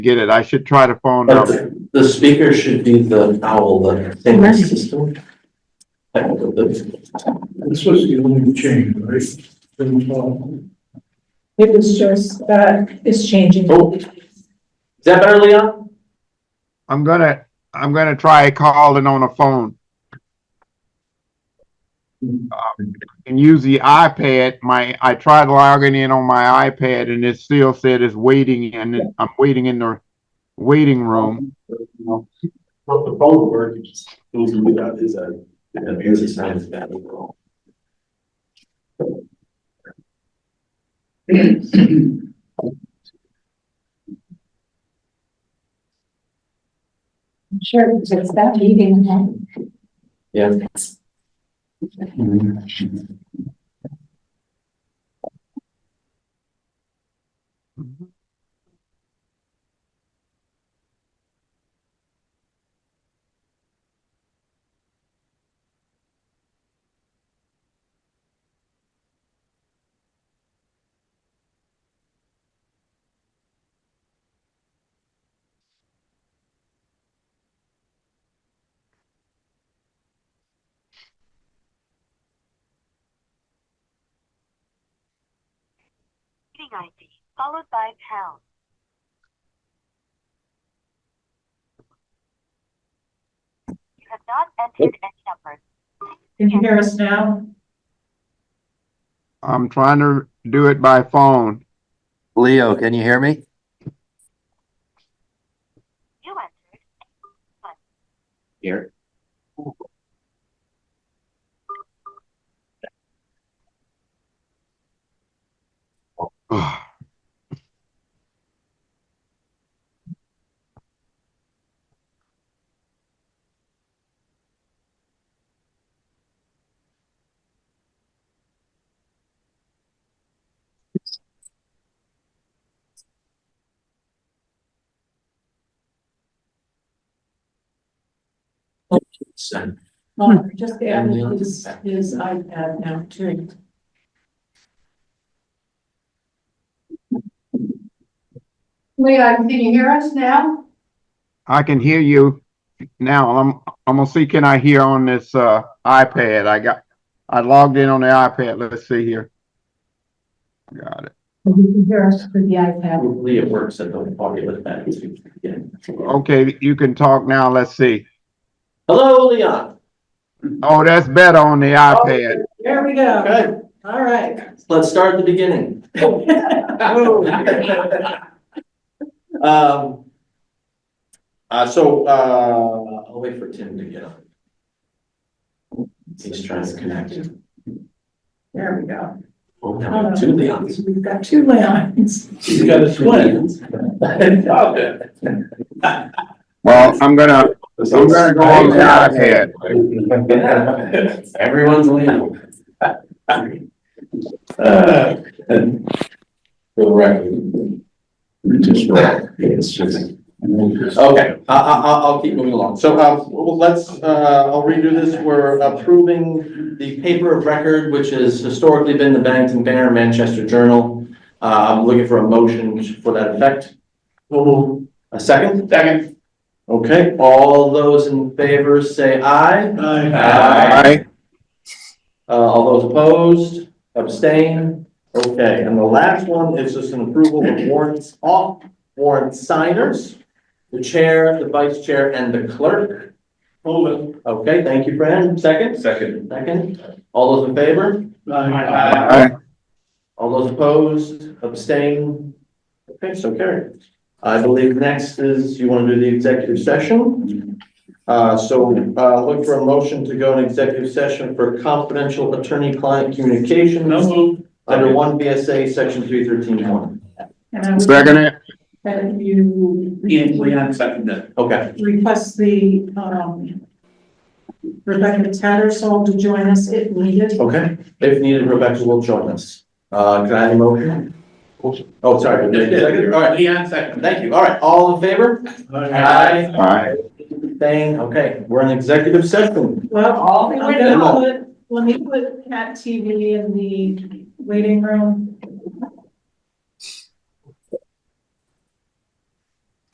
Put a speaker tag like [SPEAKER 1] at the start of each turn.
[SPEAKER 1] get it. I should try to phone
[SPEAKER 2] But
[SPEAKER 1] them.
[SPEAKER 2] the- the speaker should be the owl, the thing that's system. I don't know, the-
[SPEAKER 3] This was the only change, right? From, uh,
[SPEAKER 4] It was just, uh, it's changing.
[SPEAKER 2] Oh. Is that better, Leon?
[SPEAKER 1] I'm gonna, I'm gonna try calling on a phone. Um, And use the iPad. My, I tried logging in on my iPad and it still said it's waiting and it- I'm waiting in the waiting room.
[SPEAKER 2] Well, the phone works. Those who got is that, the music sound is bad overall.
[SPEAKER 4] Sure, because it's that meeting. huh?
[SPEAKER 2] Yeah.
[SPEAKER 5] Meeting ID, followed by pound. You have not entered any numbers.
[SPEAKER 4] Can you hear us now?
[SPEAKER 1] I'm trying to do it by phone.
[SPEAKER 6] Leo, can you hear me?
[SPEAKER 5] You entered
[SPEAKER 2] Here. Send.
[SPEAKER 4] Oh, just added his, his iPad now too. Leon, can you hear us now?
[SPEAKER 1] I can hear you now. I'm, I'm gonna see, can I hear on this, uh, iPad? I got, I logged in on the iPad. Let's see here. Got it.
[SPEAKER 4] You can hear us through the iPad.
[SPEAKER 2] Hopefully it works at the party with that. again.
[SPEAKER 1] Okay, you can talk now. Let's see.
[SPEAKER 2] Hello, Leon.
[SPEAKER 1] Oh, that's better on the iPad.
[SPEAKER 4] There we go.
[SPEAKER 2] Okay,
[SPEAKER 4] All right.
[SPEAKER 2] let's start at the beginning. Um. Uh, so, uh, I'll wait for Tim to get on. He's trying to connect.
[SPEAKER 4] There we go.
[SPEAKER 2] Oh, now we have two Leons.
[SPEAKER 4] We've got two Leons.
[SPEAKER 2] He's got a twin.
[SPEAKER 1] Well, I'm gonna, I'm gonna go on the iPad.
[SPEAKER 2] Everyone's Leon. Uh, For the record. Just right. It's just. Okay, I, I, I'll, I'll keep moving along. So, uh, well, let's, uh, I'll redo this. We're approving the paper of record, which has historically been the Bennington Banner, Manchester Journal. Uh, I'm looking for a motion for that effect. A second? Second. Okay, all those in favor say aye.
[SPEAKER 1] All right.
[SPEAKER 2] Uh, all those opposed, abstain? Okay, and the last one is just an approval of warrants off, warrant signers, the chair, the vice chair, and the clerk. Move it. Okay, thank you, Fran. Second? Second. Second. All those in favor?
[SPEAKER 1] All right.
[SPEAKER 2] All those opposed, abstain? Okay, so carried. I believe next is you want to do the executive session. Uh, so, uh, look for a motion to go in executive session for confidential attorney-client communications under one BSA, section three thirteen one.
[SPEAKER 4] And I would-
[SPEAKER 1] Second it.
[SPEAKER 4] That you.
[SPEAKER 2] Okay,
[SPEAKER 4] request the, um, Rebecca Tattersall to join us if needed.
[SPEAKER 2] okay. If needed, Rebecca will join us. Uh, can I have a motion? Oh, sorry. All right. Thank you. All right, all in favor?
[SPEAKER 1] All right.
[SPEAKER 2] Thing, okay, we're in executive session.
[SPEAKER 4] Well,
[SPEAKER 2] the
[SPEAKER 4] I'm
[SPEAKER 2] way
[SPEAKER 4] gonna
[SPEAKER 2] down.
[SPEAKER 4] put, let me put Cat TV in the waiting room.